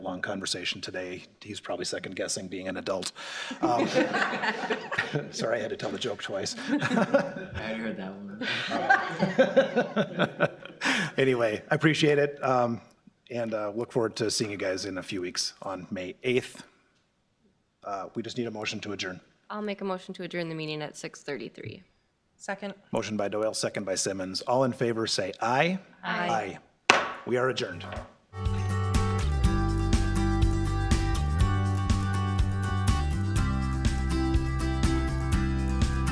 long conversation today. He's probably second guessing being an adult. Um, Sorry, I had to tell the joke twice. I already heard that one. Anyway, I appreciate it. um, And uh, look forward to seeing you guys in a few weeks on May 8th. Uh, We just need a motion to adjourn. I'll make a motion to adjourn the meeting at 6:33. Second. Motion by Doyle, second by Simmons. All in favor, say aye. Aye. We are adjourned.